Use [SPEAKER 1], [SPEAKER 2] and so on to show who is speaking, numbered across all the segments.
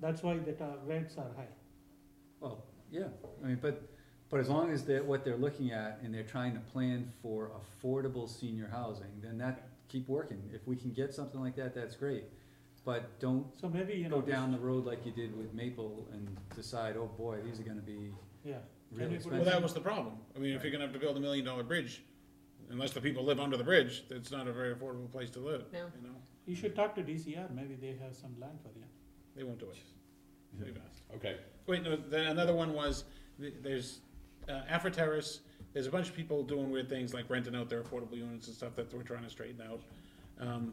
[SPEAKER 1] That's why the ta- rates are high.
[SPEAKER 2] Well, yeah, I mean, but, but as long as they're, what they're looking at and they're trying to plan for affordable senior housing, then that, keep working. If we can get something like that, that's great, but don't
[SPEAKER 1] So maybe, you know.
[SPEAKER 2] go
[SPEAKER 1] this-
[SPEAKER 2] down the road like you did with Maple and decide, oh boy, these are gonna be
[SPEAKER 1] Yeah. And
[SPEAKER 2] really
[SPEAKER 1] it would-
[SPEAKER 2] expensive.
[SPEAKER 3] Well, that was the problem. I mean, if you're gonna have to build a million dollar bridge, unless the people live under the bridge, it's not a very affordable place to live,
[SPEAKER 4] No.
[SPEAKER 3] you know?
[SPEAKER 1] You should talk to DCR, maybe they have some land for you.
[SPEAKER 3] They won't do it. They've asked.
[SPEAKER 5] Okay,
[SPEAKER 3] Wait, no, then another one was, th- there's, uh, Afro Terrace, there's a bunch of people doing weird things like renting out their affordable units and stuff that we're trying to straighten out. Um,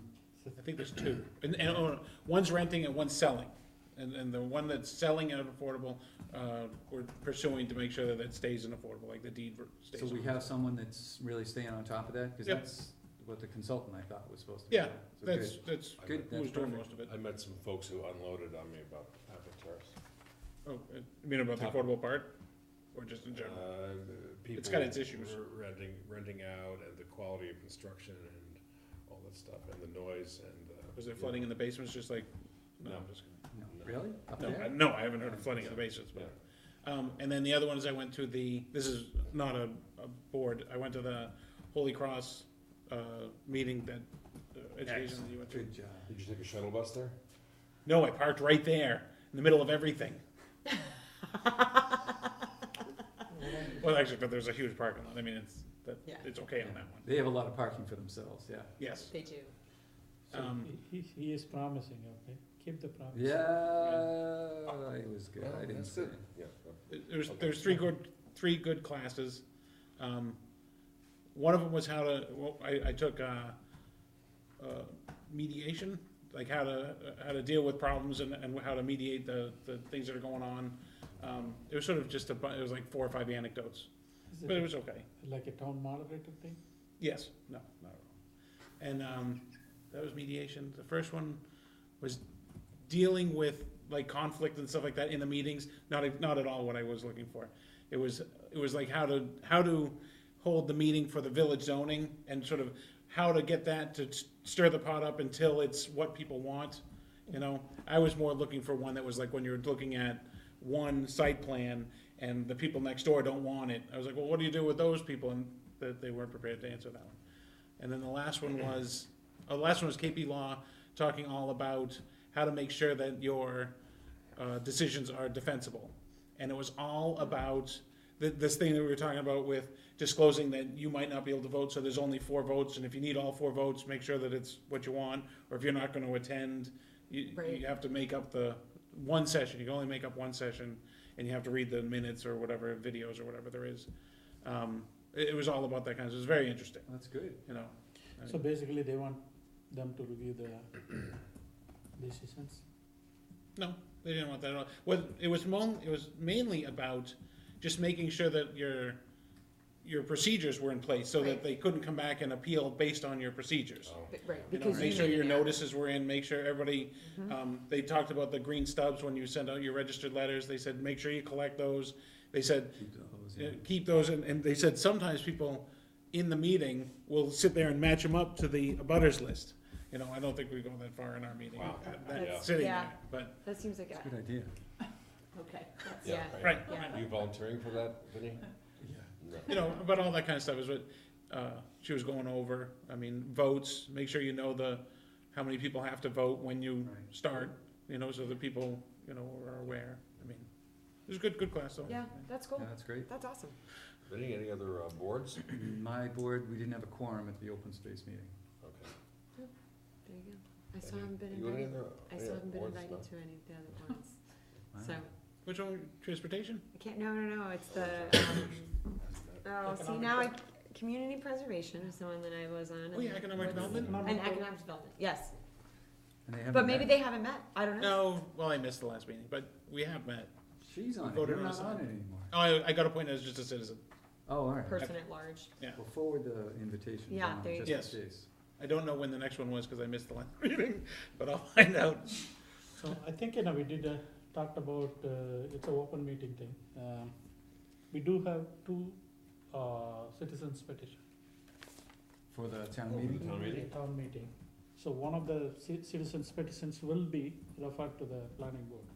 [SPEAKER 3] I think there's two, and, and, oh, one's renting and one's selling. And, and the one that's selling at affordable, uh, we're pursuing to make sure that it stays in affordable, like the deed ver- stays.
[SPEAKER 2] So we have someone that's really staying on top of that, cause
[SPEAKER 3] Yep.
[SPEAKER 2] that's what the consultant I thought was supposed to be.
[SPEAKER 3] Yeah,
[SPEAKER 2] doing. So good.
[SPEAKER 3] That's, that's
[SPEAKER 2] Good,
[SPEAKER 3] who's
[SPEAKER 2] that's
[SPEAKER 3] doing
[SPEAKER 2] perfect.
[SPEAKER 3] most of it.
[SPEAKER 5] I met some folks who unloaded on me about Avatars.
[SPEAKER 3] Oh, uh, you mean about the
[SPEAKER 5] Top.
[SPEAKER 3] affordable part, or just in general?
[SPEAKER 5] Uh, people
[SPEAKER 3] It's got its issues.
[SPEAKER 5] were Renting, renting out and the quality of construction and all that stuff and the noise and. uh,
[SPEAKER 3] Was there flooding in the basements, just like, no,
[SPEAKER 5] No.
[SPEAKER 3] I'm just kidding.
[SPEAKER 2] No, Really? Up
[SPEAKER 3] No, I,
[SPEAKER 2] there?
[SPEAKER 3] no, I haven't heard of flooding in the basements, but. Um, and then the other one is I went to the, this is not a, a board, I went to the Holy Cross, uh, meeting that, uh, education that you went to.
[SPEAKER 2] Good job.
[SPEAKER 5] Did you take a shuttle bus there?
[SPEAKER 3] No, I parked right there, in the middle of everything. Well, actually, but there's a huge parking lot, I mean, it's, that,
[SPEAKER 4] Yeah.
[SPEAKER 3] it's okay on that one,
[SPEAKER 2] They have a lot of parking for themselves, yeah.
[SPEAKER 3] yes.
[SPEAKER 4] They do.
[SPEAKER 1] So
[SPEAKER 3] Um,
[SPEAKER 1] he, he he is promising, okay? Keep the promise.
[SPEAKER 2] Yeah, it was good, I didn't
[SPEAKER 5] That's
[SPEAKER 2] say.
[SPEAKER 5] good. Yeah.
[SPEAKER 3] There's, there's three good, three good classes. Um, one of them was how to, well, I, I took, uh, uh, mediation, like how to, uh, how to deal with problems and, and how to mediate the, the things that are going on. Um, it was sort of just a, bu- it was like four or five anecdotes,
[SPEAKER 1] Is
[SPEAKER 3] but it
[SPEAKER 1] it
[SPEAKER 3] was okay.
[SPEAKER 1] like a town moderator thing?
[SPEAKER 3] Yes, no, not at all. And, um, that was mediation. The first one was dealing with like conflict and stuff like that in the meetings, not, not at all what I was looking for. It was, it was like how to, how to hold the meeting for the village zoning and sort of how to get that to s- stir the pot up until it's what people want, you know? I was more looking for one that was like when you're looking at one site plan and the people next door don't want it. I was like, well, what do you do with those people? And that they weren't prepared to answer that one. And then the last one was, oh, the last one was KP Law talking all about how to make sure that your uh, decisions are defensible. And it was all about th- this thing that we were talking about with disclosing that you might not be able to vote, so there's only four votes, and if you need all four votes, make sure that it's what you want, or if you're not gonna attend, you,
[SPEAKER 4] Right.
[SPEAKER 3] you have to make up the one session, you can only make up one session, and you have to read the minutes or whatever, videos or whatever there is. Um, it, it was all about that kind of, it was very interesting,
[SPEAKER 2] That's good.
[SPEAKER 3] you know?
[SPEAKER 1] So basically, they want them to review the decisions.
[SPEAKER 3] No, they didn't want that at all. What it was mon- it was mainly about just making sure that your your procedures were in place so that
[SPEAKER 4] Right.
[SPEAKER 3] they couldn't come back and appeal based on your procedures.
[SPEAKER 5] Oh.
[SPEAKER 4] But- Right. Mm-hmm.
[SPEAKER 3] You know,
[SPEAKER 4] because
[SPEAKER 3] make
[SPEAKER 4] you-
[SPEAKER 3] sure your
[SPEAKER 4] yeah.
[SPEAKER 3] notices were in, make sure everybody, um, they talked about the green stubs when you send out your registered letters, they said, make sure you collect those. They said,
[SPEAKER 2] Keep those,
[SPEAKER 3] uh,
[SPEAKER 2] yeah.
[SPEAKER 3] keep those, and, and they said sometimes people in the meeting will sit there and match them up to the abutters list. You know, I don't think we go that far in our meeting,
[SPEAKER 5] Wow.
[SPEAKER 3] that-
[SPEAKER 5] Yeah.
[SPEAKER 3] that, sitting there,
[SPEAKER 4] Yeah.
[SPEAKER 3] but,
[SPEAKER 4] That seems like, a-
[SPEAKER 2] Good idea.
[SPEAKER 4] okay, that's- yeah.
[SPEAKER 3] right,
[SPEAKER 4] Yeah.
[SPEAKER 5] Are you volunteering for that, Vinny?
[SPEAKER 4] Uh.
[SPEAKER 2] Yeah.
[SPEAKER 3] you
[SPEAKER 5] No.
[SPEAKER 3] know, about all that kind of stuff is what uh, she was going over. I mean, votes. Make sure you know the how many people have to vote when you
[SPEAKER 2] Right.
[SPEAKER 3] start. You know, so the people you know are aware. I mean, it was a good, good class though.
[SPEAKER 4] Yeah, that's
[SPEAKER 2] Yeah,
[SPEAKER 4] cool.
[SPEAKER 2] that's great.
[SPEAKER 4] That's awesome.
[SPEAKER 5] Vinny, any other uh, boards?
[SPEAKER 2] My board, we didn't have a quorum at the open space meeting.
[SPEAKER 5] Okay.
[SPEAKER 4] There you go. I still
[SPEAKER 5] Any-
[SPEAKER 4] haven't been
[SPEAKER 5] you want any
[SPEAKER 4] invited,
[SPEAKER 5] other,
[SPEAKER 4] I
[SPEAKER 5] yeah,
[SPEAKER 4] still haven't been
[SPEAKER 5] boards,
[SPEAKER 4] invited
[SPEAKER 5] no?
[SPEAKER 4] to any of the other ones. So,
[SPEAKER 2] Wow.
[SPEAKER 4] I
[SPEAKER 3] Which one? Transportation.
[SPEAKER 4] can't, no, no, no, it's the, um, oh, see,
[SPEAKER 3] Economic
[SPEAKER 4] now I, community preservation is the one that I was on.
[SPEAKER 3] Oh yeah,
[SPEAKER 4] and
[SPEAKER 3] economic
[SPEAKER 4] what's-
[SPEAKER 3] development.
[SPEAKER 4] And economic development, yes.
[SPEAKER 2] And they
[SPEAKER 4] But
[SPEAKER 2] haven't
[SPEAKER 4] maybe
[SPEAKER 2] met.
[SPEAKER 4] they haven't met. I don't know.
[SPEAKER 3] No, well, I missed the last meeting, but we have met.
[SPEAKER 2] She's on it, you're
[SPEAKER 3] voted on
[SPEAKER 2] not
[SPEAKER 3] us.
[SPEAKER 2] on it anymore.
[SPEAKER 3] Oh, I, I got appointed as just a citizen.
[SPEAKER 2] Oh, all right.
[SPEAKER 4] Person at large.
[SPEAKER 2] Well, forward the invitation.
[SPEAKER 4] Yeah,
[SPEAKER 2] John,
[SPEAKER 4] there you
[SPEAKER 2] just
[SPEAKER 3] go.
[SPEAKER 2] in
[SPEAKER 3] Yes.
[SPEAKER 2] case.
[SPEAKER 3] I don't know when the next one was because I missed the last meeting, but I'll find out.
[SPEAKER 1] So I think, you know, we did, uh, talked about, uh, it's a open meeting thing. Um, We do have two, uh, citizens petition.
[SPEAKER 2] For the town
[SPEAKER 5] Over the
[SPEAKER 2] meeting?
[SPEAKER 5] town meeting?
[SPEAKER 1] Town meeting. So one of the ci- citizens petitions will be referred to the planning board.